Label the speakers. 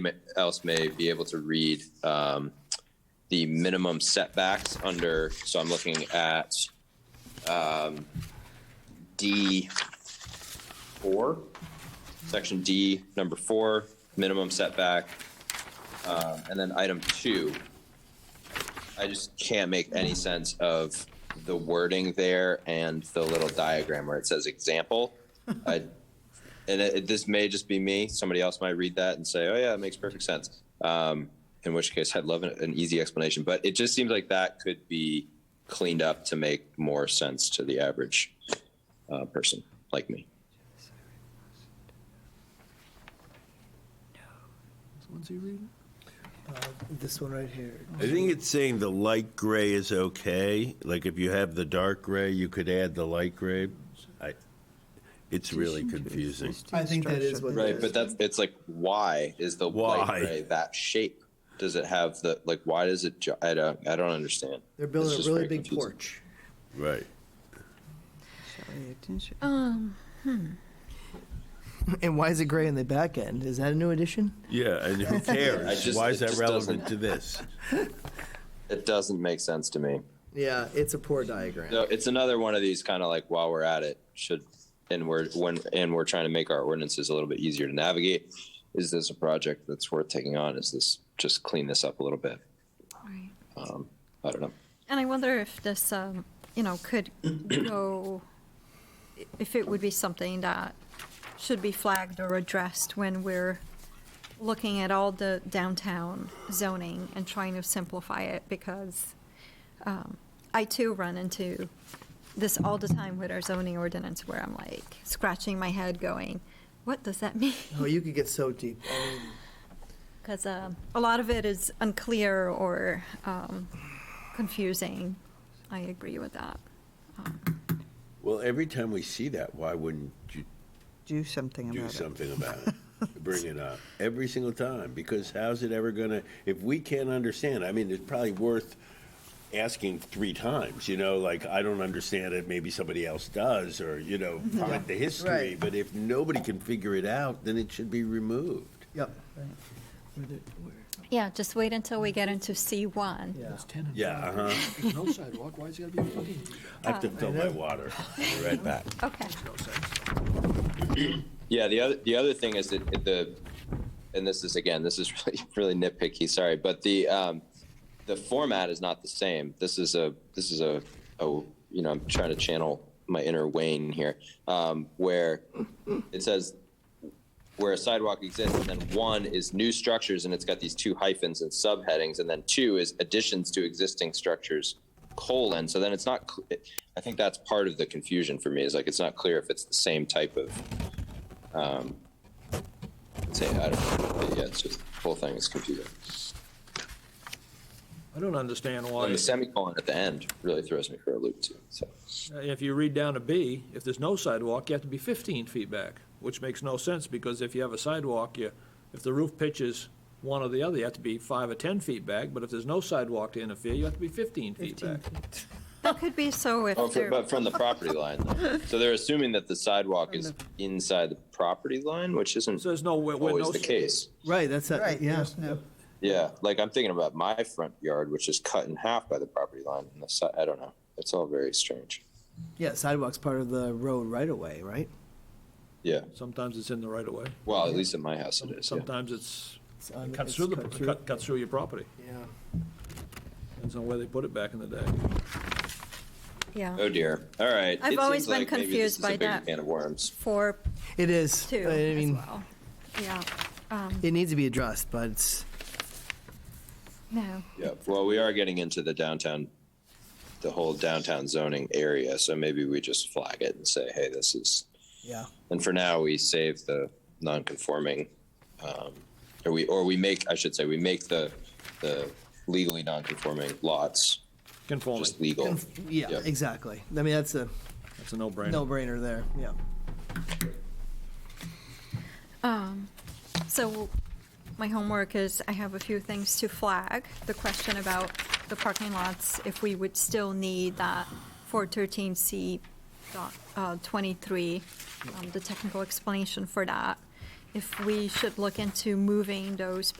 Speaker 1: ma- else may be able to read um, the minimum setbacks under, so I'm looking at um, D four, section D, number four, minimum setback. Um, And then item two, I just can't make any sense of the wording there and the little diagram where it says example. I and it, it- this may just be me. Somebody else might read that and say, "Oh yeah, it makes perfect sense." Um, in which case, I'd love an, an easy explanation. But it just seems like that could be cleaned up to make more sense to the average uh, person like me.
Speaker 2: Uh, This one right here.
Speaker 3: I think it's saying the light gray is okay. Like if you have the dark gray, you could add the light gray. I, it's really confusing.
Speaker 2: I think that is what it
Speaker 1: Right, but that's it's like why is the
Speaker 3: Why?
Speaker 1: light gray that shape? Does it have the like? Why does it? ju- I don't. I don't understand.
Speaker 2: They're
Speaker 1: It's
Speaker 2: building
Speaker 1: just
Speaker 2: a really
Speaker 1: very
Speaker 2: big
Speaker 1: confusing.
Speaker 2: porch.
Speaker 3: Right.
Speaker 4: Oh.
Speaker 5: Um,
Speaker 2: And why is it gray in the back end? Is that a new addition?
Speaker 3: Yeah, and who
Speaker 1: I
Speaker 3: cares?
Speaker 1: just-
Speaker 3: Why is
Speaker 1: it
Speaker 3: that
Speaker 1: just
Speaker 3: relevant
Speaker 1: doesn't-
Speaker 3: to this?
Speaker 1: It doesn't make sense to me.
Speaker 2: Yeah, it's a poor diagram.
Speaker 1: So it's another one of these kind of like while we're at it should and we're when and we're trying to make our ordinances a little bit easier to navigate. Is this a project that's worth taking on? Is this just clean this up a little bit?
Speaker 5: right.
Speaker 1: Um, I don't know.
Speaker 5: And I wonder if this, um, you know, could go, if it would be something that should be flagged or addressed when we're looking at all the downtown zoning and trying to simplify it, because um, I too run into this all the time with our zoning ordinance, where I'm like scratching my head going, what does that mean?
Speaker 2: Oh, you could get so deep. I mean,
Speaker 5: Because um a lot of it is unclear or um, confusing. I agree with that.
Speaker 3: Well, every time we see that, why wouldn't you
Speaker 4: Do something
Speaker 3: do
Speaker 4: about it.
Speaker 3: something about it? Bring it up every single time because how's it ever gonna, if we can't understand, I mean, it's probably worth asking three times, you know, like, I don't understand it, maybe somebody else does, or, you know,
Speaker 4: Mm-hmm.
Speaker 3: find the history.
Speaker 2: Right.
Speaker 3: But if nobody can figure it out, then it should be removed.
Speaker 2: Yep.
Speaker 5: Yeah, just wait until we get into C1.
Speaker 2: Yeah.
Speaker 3: Yeah, uh-huh.
Speaker 6: There's no sidewalk, why is it gotta be a fucking?
Speaker 3: I have to fill
Speaker 4: Uh,
Speaker 3: my water. Be Right back.
Speaker 5: Okay.
Speaker 1: Yeah, the other the other thing is that it- the and this is again this is really really nitpicky. Sorry, but the um, the format is not the same. This is a this is a, a you know I'm trying to channel my inner Wayne here, um, where it says where a sidewalk exists, and then one is new structures, and it's got these two hyphens and subheadings, and then two is additions to existing structures colon. So then it's not. cl- I think that's part of the confusion for me is like it's not clear if it's the same type of say, I don't know. Yeah, it's just the whole thing is confusing.
Speaker 6: I don't understand
Speaker 1: And
Speaker 6: why,
Speaker 1: the semicolon at the end really throws me for a loop too. So
Speaker 6: uh, if you read down to B, if there's no sidewalk, you have to be fifteen feet back, which makes no sense, because if you have a sidewalk, you, if the roof pitches one or the other, you have to be five or ten feet back, but if there's no sidewalk to interfere, you have to be fifteen feet back.
Speaker 5: That could be so if
Speaker 1: oh, fr-
Speaker 5: there,
Speaker 1: but from the property line, though. so they're assuming that the sidewalk is inside the property line, which isn't
Speaker 6: So there's no, where, where no.
Speaker 1: always the case.
Speaker 2: Right, that's
Speaker 4: Right,
Speaker 2: that, yeah.
Speaker 4: there's no,
Speaker 1: Yeah, like I'm thinking about my front yard, which is cut in half by the property line, and the side. I don't know. It's all very strange.
Speaker 2: Yeah, sidewalk's part of the road right away, right?
Speaker 1: Yeah.
Speaker 6: Sometimes it's in the right of way,
Speaker 1: Well, at least at my house it is. Yeah.
Speaker 6: sometimes it's,
Speaker 2: It's on-
Speaker 6: it cuts
Speaker 2: it's
Speaker 6: through the,
Speaker 2: cut through.
Speaker 6: cut, cuts through your property,
Speaker 2: Yeah.
Speaker 6: depends on where they put it back in the day.
Speaker 1: Oh
Speaker 5: yeah,
Speaker 1: dear. All right.
Speaker 5: I've
Speaker 1: It
Speaker 5: always
Speaker 1: seems
Speaker 5: been
Speaker 1: like maybe this is
Speaker 5: confused
Speaker 1: a
Speaker 5: by
Speaker 1: big
Speaker 5: that.
Speaker 1: Can of worms.
Speaker 5: for
Speaker 2: It is.
Speaker 5: 2
Speaker 2: I
Speaker 5: as
Speaker 2: mean,
Speaker 5: well. Yeah, um,
Speaker 2: it needs to be addressed, but it's,
Speaker 5: no,
Speaker 1: Yeah, well, we are getting into the downtown, the whole downtown zoning area, so maybe we just flag it and say, hey, this is,
Speaker 2: yeah.
Speaker 1: and for now, we save the non-conforming, um, or we, or we make, I should say, we make the, the legally non-conforming lots
Speaker 6: Conforming,
Speaker 1: just legal.
Speaker 2: Yeah,
Speaker 1: Yep.
Speaker 2: exactly. I mean, that's a
Speaker 6: that's a no-brainer.
Speaker 2: no-brainer there, yeah.
Speaker 5: Um, So my homework is I have a few things to flag. The question about the parking lots, if we would still need that 413C dot, uh, 23, um, the technical explanation for that. if we should look into moving those